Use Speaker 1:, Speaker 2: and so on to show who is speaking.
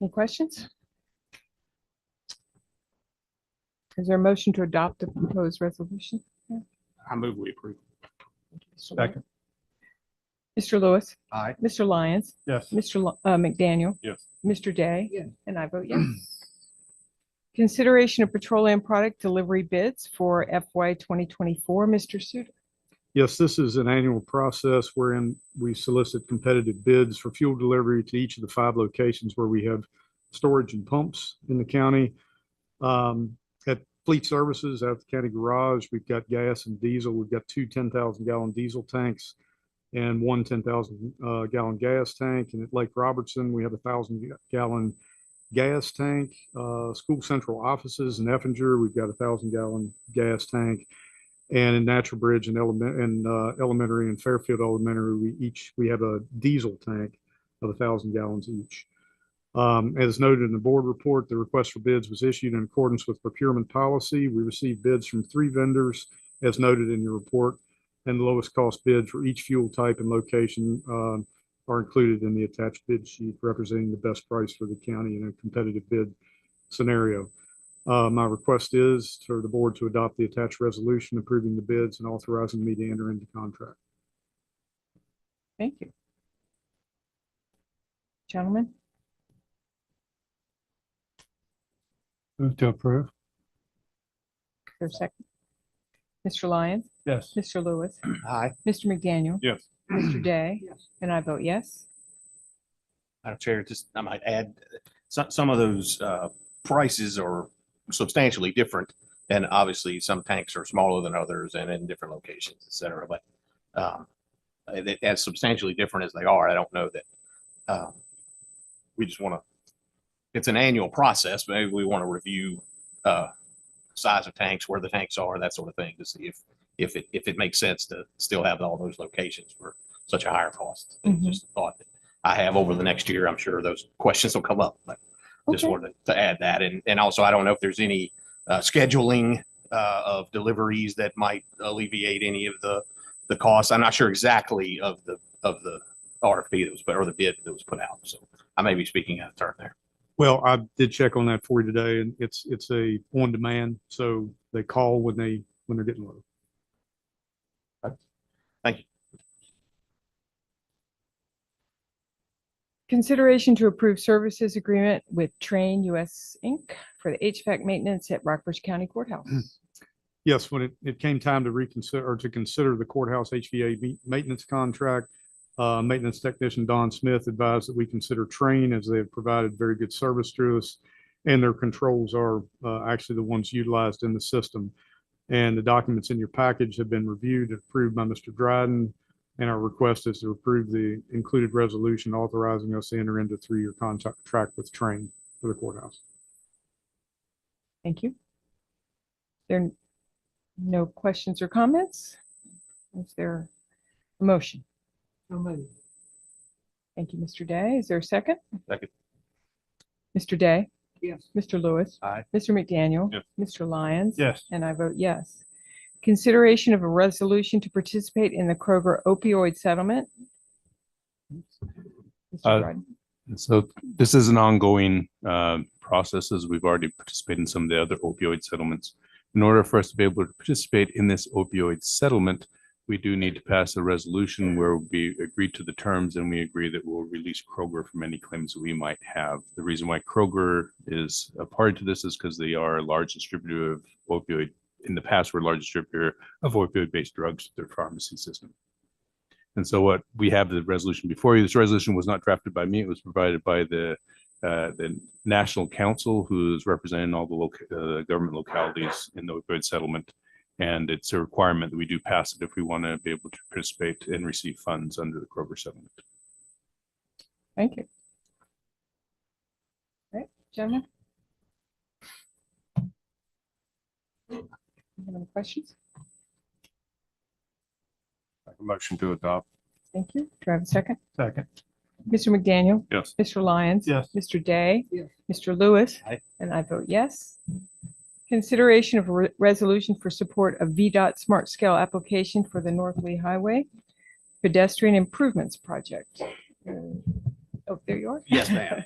Speaker 1: Any questions? Is there a motion to adopt the proposed resolution?
Speaker 2: I move we approve.
Speaker 3: Second.
Speaker 1: Mr. Lewis,
Speaker 2: Aye.
Speaker 1: Mr. Lyons,
Speaker 3: Yes.
Speaker 1: Mr. Lo- uh, McDaniel,
Speaker 3: Yes.
Speaker 1: Mr. Day.
Speaker 2: Yes.
Speaker 1: And I vote yes. Consideration of petroleum product delivery bids for FY 2024. Mr. Suter.
Speaker 3: Yes, this is an annual process wherein we solicit competitive bids for fuel delivery to each of the five locations where we have storage and pumps in the county. Um, At Fleet Services, out at the county garage, we've got gas and diesel. We've got two 10,000 gallon diesel tanks and one 10,000 uh, gallon gas tank. And at Lake Robertson, we have a 1,000 gallon gas tank. Uh, School Central offices in Effinger, we've got a 1,000 gallon gas tank. And in Natural Bridge and element, and uh, elementary and Fairfield Elementary, we each, we have a diesel tank of a thousand gallons each. Um, as noted in the board report, the request for bids was issued in accordance with procurement policy. We received bids from three vendors as noted in your report. And the lowest cost bid for each fuel type and location, um, are included in the attached bid sheet representing the best price for the county in a competitive bid scenario. Uh, my request is for the board to adopt the attached resolution approving the bids and authorizing me to enter into contract.
Speaker 1: Thank you. Gentlemen,
Speaker 3: Move to approve.
Speaker 1: is there a second. Mr. Lyons,
Speaker 3: Yes.
Speaker 1: Mr. Lewis,
Speaker 2: Aye.
Speaker 1: Mr. McDaniel,
Speaker 3: Yes.
Speaker 1: Mr. Day.
Speaker 2: Yes.
Speaker 1: And I vote yes.
Speaker 2: Madam Chair, just, I might add, some, some of those, uh, prices are substantially different. And obviously, some tanks are smaller than others and in different locations, et cetera, but, um, uh, that- as substantially different as they are, I don't know that, um, we just want to, it's an annual process, maybe we want to review, uh, size of tanks, where the tanks are, that sort of thing, to see if, if it, if it makes sense to still have all those locations for such a higher cost.
Speaker 1: Mhm.
Speaker 2: Just a thought that I have over the next year, I'm sure those questions will come up, but just
Speaker 1: Okay.
Speaker 2: wanted to add that. And, and also, I don't know if there's any uh, scheduling uh, of deliveries that might alleviate any of the, the costs. I'm not sure exactly of the, of the RFP that was, put or the bid that was put out. So I may be speaking out of turn there.
Speaker 3: Well, I did check on that for you today and it's, it's a on-demand, so they call when they, when they're getting low.
Speaker 1: Consideration to approve services agreement with Train US Inc. for the HVAC maintenance at Rockbridge County Courthouse.
Speaker 3: Yes, when it, it came time to reconsider, or to consider the courthouse HVA me- maintenance contract, uh, maintenance technician Don Smith advised that we consider Train as they have provided very good service to us. And their controls are, uh, actually the ones utilized in the system. And the documents in your package have been reviewed and approved by Mr. Dryden. And our request is to approve the included resolution authorizing us to enter into three-year contract with Train for the courthouse.
Speaker 1: Thank you. There are no questions or comments? Is there a motion? Thank you, Mr. Day. Is there a second?
Speaker 2: Second.
Speaker 1: Mr. Day?
Speaker 3: Yes.
Speaker 1: Mr. Lewis?
Speaker 2: Aye.
Speaker 1: Mr. McDaniel?
Speaker 3: Yes.
Speaker 1: Mr. Lyons?
Speaker 3: Yes.
Speaker 1: And I vote yes. Consideration of a resolution to participate in the Kroger opioid settlement. Mr.
Speaker 4: Uh,
Speaker 1: Dryden.
Speaker 4: And So this is an ongoing uh, process as we've already participated in some of the other opioid settlements. In order for us to be able to participate in this opioid settlement, we do need to pass a resolution where we agree to the terms and we agree that we'll release Kroger from any claims we might have. The reason why Kroger is a party to this is because they are a large distributor of opioid. In the past, were a large distributor of opioid-based drugs to their pharmacy system. And so what we have the resolution before you, this resolution was not drafted by me. It was provided by the, uh, the National Council, who's representing all the local, uh, government localities in the opioid settlement. And it's a requirement that we do pass it if we want to be able to participate and receive funds under the Kroger settlement.
Speaker 1: Thank you. All right, gentlemen? You have Any questions?
Speaker 4: Motion to adopt.
Speaker 1: Thank you. Do I have a second?
Speaker 3: Second.
Speaker 1: Mr. McDaniel?
Speaker 4: Yes.
Speaker 1: Mr. Lyons?
Speaker 3: Yes.
Speaker 1: Mr. Day?
Speaker 2: Yes.
Speaker 1: Mr. Lewis?
Speaker 2: Aye.
Speaker 1: And I vote yes. Consideration of a re- resolution for support of VDOT Smart Scale application for the North Lee Highway pedestrian improvements project. Uh, Oh, there you are.
Speaker 2: Yes, ma'am.